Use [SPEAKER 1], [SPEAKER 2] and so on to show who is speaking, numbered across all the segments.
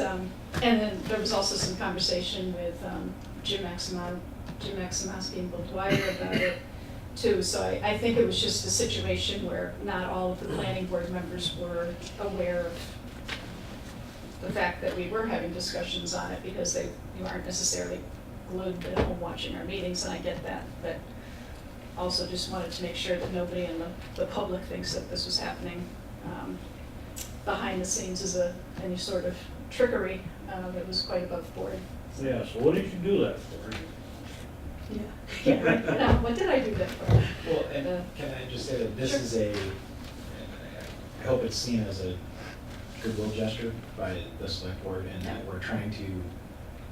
[SPEAKER 1] um, And then there was also some conversation with um, Jim Maximo, Jim Maximowski and Bill Dwyer about it too. So I, I think it was just a situation where not all of the planning board members were aware of the fact that we were having discussions on it because they, you aren't necessarily glued to home watching our meetings, and I get that. But also just wanted to make sure that nobody in the, the public thinks that this was happening um, behind the scenes as a, any sort of trickery uh, that was quite above board.
[SPEAKER 2] Yeah, so what did you do that for?
[SPEAKER 1] Yeah. Yeah, right. No, what did I do that for?
[SPEAKER 3] Well, and
[SPEAKER 1] Uh,
[SPEAKER 3] can I just say that this
[SPEAKER 1] sure.
[SPEAKER 3] is a, I hope it's seen as a goodwill gesture by the select board and that
[SPEAKER 1] Yeah.
[SPEAKER 3] we're trying to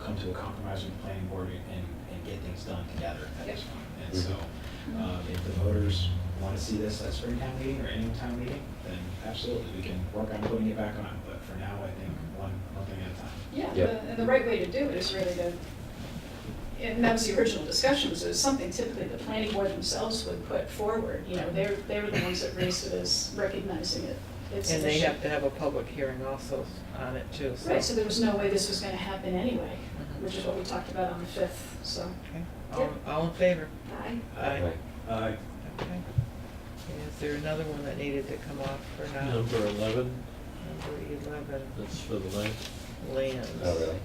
[SPEAKER 3] come to a compromise with the planning board and, and get things done together at this
[SPEAKER 1] Yeah. Mm-hmm.
[SPEAKER 3] point. And so, um, if the voters want to see this at spring town meeting or any town meeting, then absolutely, we can work on putting it back on. But for now, I think one, one thing at a time.
[SPEAKER 1] Yeah,
[SPEAKER 4] Yeah.
[SPEAKER 1] the- and the right way to do it is really to, and that was the original discussion, so it's something typically the planning board themselves would put forward. You know, they're, they were the ones that raised it as recognizing it. It's
[SPEAKER 5] And
[SPEAKER 1] an
[SPEAKER 5] they
[SPEAKER 1] issue.
[SPEAKER 5] have to have a public hearing also on it too, so.
[SPEAKER 1] Right, so there was no way this was gonna happen anyway,
[SPEAKER 5] Mhm.
[SPEAKER 1] which is what we talked about on the fifth, so.
[SPEAKER 5] Okay. All, all in favor?
[SPEAKER 1] Aye.
[SPEAKER 4] Right.
[SPEAKER 2] Aye.
[SPEAKER 5] Okay. And Is there another one that needed to come off for now?
[SPEAKER 6] Number eleven,
[SPEAKER 5] Number eleven,
[SPEAKER 6] that's for the length.
[SPEAKER 5] lands.
[SPEAKER 4] Oh, really?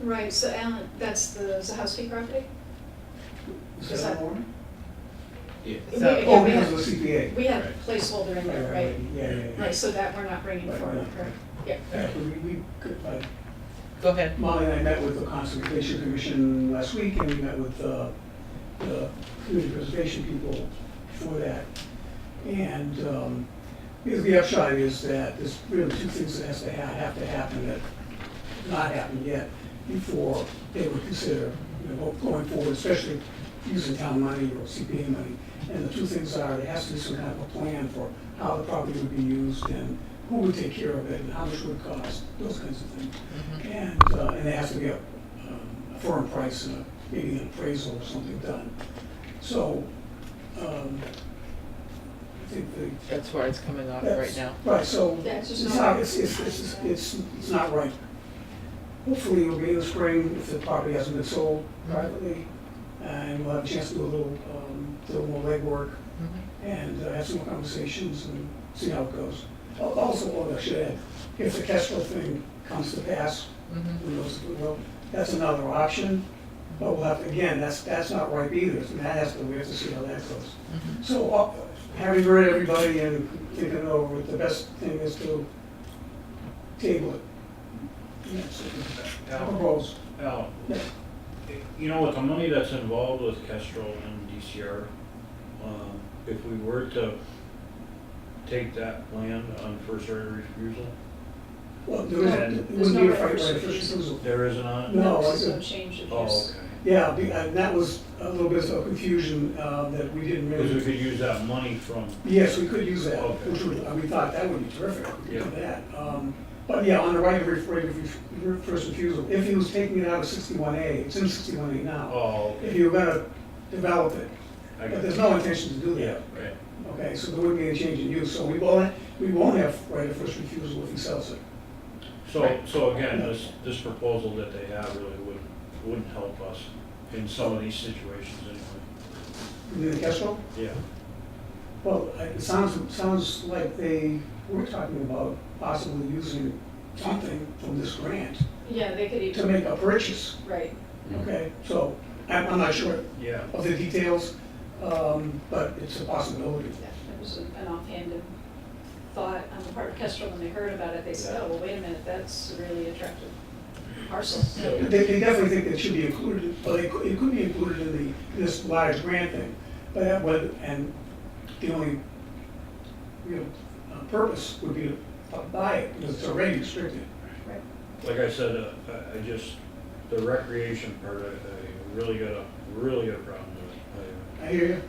[SPEAKER 1] Right, so Alan, that's the Zahowski property? Is that-
[SPEAKER 3] Yeah.
[SPEAKER 1] We-
[SPEAKER 5] So-
[SPEAKER 1] yeah,
[SPEAKER 7] Oh,
[SPEAKER 1] we
[SPEAKER 7] because
[SPEAKER 1] have-
[SPEAKER 7] of the CPA.
[SPEAKER 1] We have
[SPEAKER 3] Right.
[SPEAKER 1] placeholder in there, right?
[SPEAKER 7] Yeah, yeah, yeah.
[SPEAKER 1] Right, so that we're not bringing
[SPEAKER 7] Right,
[SPEAKER 1] forward,
[SPEAKER 7] right.
[SPEAKER 1] correct? Yeah.
[SPEAKER 7] Actually, we, we, uh,
[SPEAKER 5] Go ahead.
[SPEAKER 7] Molly and I met with the Conservation Commission last week, and we met with uh, the community preservation people for that. And um, because the upshot is that there's really two things that has to ha- have to happen that have not happened yet before they would consider, you know, going forward, especially using town money or CPA money. And the two things are, there has to be some kind of a plan for how the property would be used and who would take care of it and how much it would cost, those kinds of things. And, uh, and it has to be a, um, a firm price, and a- maybe an appraisal or something done. So, um, I think the.
[SPEAKER 5] That's where it's coming off right
[SPEAKER 7] that's-
[SPEAKER 5] now.
[SPEAKER 7] Right, so,
[SPEAKER 1] That's just
[SPEAKER 7] it's
[SPEAKER 1] not-
[SPEAKER 7] not, it's, it's, it's, it's, it's not right. Hopefully it'll be in the spring if the property hasn't been sold privately, and we'll have a chance to do a little, um, do a little more legwork
[SPEAKER 5] Mhm.
[SPEAKER 7] and uh, have some more conversations and see how it goes. Al- Also, what I should add, if the Kestrel thing comes to pass,
[SPEAKER 5] Mhm.
[SPEAKER 7] who knows, well, that's another option, but we'll have, to again, that's, that's not ripe either, so that has to, we have to see how that goes.
[SPEAKER 5] Mhm.
[SPEAKER 7] So, uh, having heard everybody and thinking over it, the best thing is to table it. Yes, I propose.
[SPEAKER 2] Al,
[SPEAKER 7] Yeah.
[SPEAKER 2] you know, with the money that's involved with Kestrel and DCR, um, if we were to take that land on first right of refusal,
[SPEAKER 7] Well, there isn't, it
[SPEAKER 1] There's
[SPEAKER 7] wouldn't
[SPEAKER 1] no
[SPEAKER 7] be a
[SPEAKER 1] right of
[SPEAKER 7] right of
[SPEAKER 1] first
[SPEAKER 7] first refusal.
[SPEAKER 2] there isn't on it?
[SPEAKER 7] No,
[SPEAKER 1] There's
[SPEAKER 7] I-
[SPEAKER 1] no change of
[SPEAKER 2] Oh,
[SPEAKER 1] use.
[SPEAKER 2] okay.
[SPEAKER 7] Yeah, be- and that was a little bit of confusion, uh, that we didn't really.
[SPEAKER 2] Because we could use that money from,
[SPEAKER 7] Yes, we could use that,
[SPEAKER 2] Okay.
[SPEAKER 7] which would, uh, we thought that would be terrific, we could do
[SPEAKER 2] Yeah.
[SPEAKER 7] that. Um, But yeah, on the right of ref- right of ref- ref- first refusal, if he was taking it out of sixty-one A, it's in sixty-one A now,
[SPEAKER 2] oh,
[SPEAKER 7] if you were gonna develop it,
[SPEAKER 2] I
[SPEAKER 7] but
[SPEAKER 2] got
[SPEAKER 7] there's
[SPEAKER 2] it.
[SPEAKER 7] no intention to do
[SPEAKER 2] Yeah,
[SPEAKER 7] that.
[SPEAKER 2] right.
[SPEAKER 7] Okay, so there wouldn't be any change in use, so we won't, we won't have right of first refusal if he sells it.
[SPEAKER 2] So, so again, this, this proposal that they have really wouldn't, wouldn't help us in some of these situations anyway.
[SPEAKER 7] You mean the Kestrel?
[SPEAKER 2] Yeah.
[SPEAKER 7] Well, I- it sounds, it sounds like they were talking about possibly using something from this grant
[SPEAKER 1] Yeah, they could
[SPEAKER 7] to
[SPEAKER 1] even,
[SPEAKER 7] make a purchase,
[SPEAKER 1] right,
[SPEAKER 4] Mm-hmm.
[SPEAKER 2] Hmm.
[SPEAKER 7] okay? So I'm, I'm not sure
[SPEAKER 2] Yeah.
[SPEAKER 7] of the details, um, but it's a possibility.
[SPEAKER 1] yeah, it was an offhanded thought on the part of Kestrel when they heard about it, they said, oh, well, wait a minute, that's a really attractive parcel.
[SPEAKER 7] They, they definitely think it should be included, but it could, it could be included in the, in this large grant thing. But that would, and the only, you know, uh, purpose would be to buy it, because it's already restricted.
[SPEAKER 1] Right.
[SPEAKER 2] like I said, uh, I, I just, the recreation part, I, I really got a, really got a problem with it.
[SPEAKER 7] I hear you.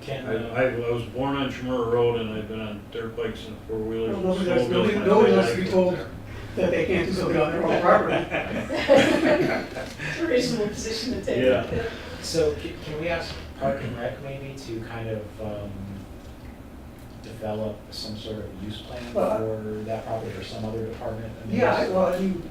[SPEAKER 3] Can,
[SPEAKER 2] I,
[SPEAKER 3] uh,
[SPEAKER 2] I, I was born on Chamorro Road and I've been on dirt bikes and four wheelers and
[SPEAKER 7] Well, nobody likes-
[SPEAKER 2] snowmobiles.
[SPEAKER 7] nobody-
[SPEAKER 2] my
[SPEAKER 7] nobody
[SPEAKER 2] whole
[SPEAKER 7] likes to
[SPEAKER 2] life.
[SPEAKER 7] be told that they can't do something on their own property.
[SPEAKER 1] It's a reasonable position to take.
[SPEAKER 2] Yeah.
[SPEAKER 3] So c- can we ask Park and Rec maybe to kind of um, develop some sort of use plan
[SPEAKER 7] Well, I-
[SPEAKER 3] for that property or some other department? I mean,
[SPEAKER 7] Yeah, I-
[SPEAKER 3] there's-
[SPEAKER 7] well, I mean,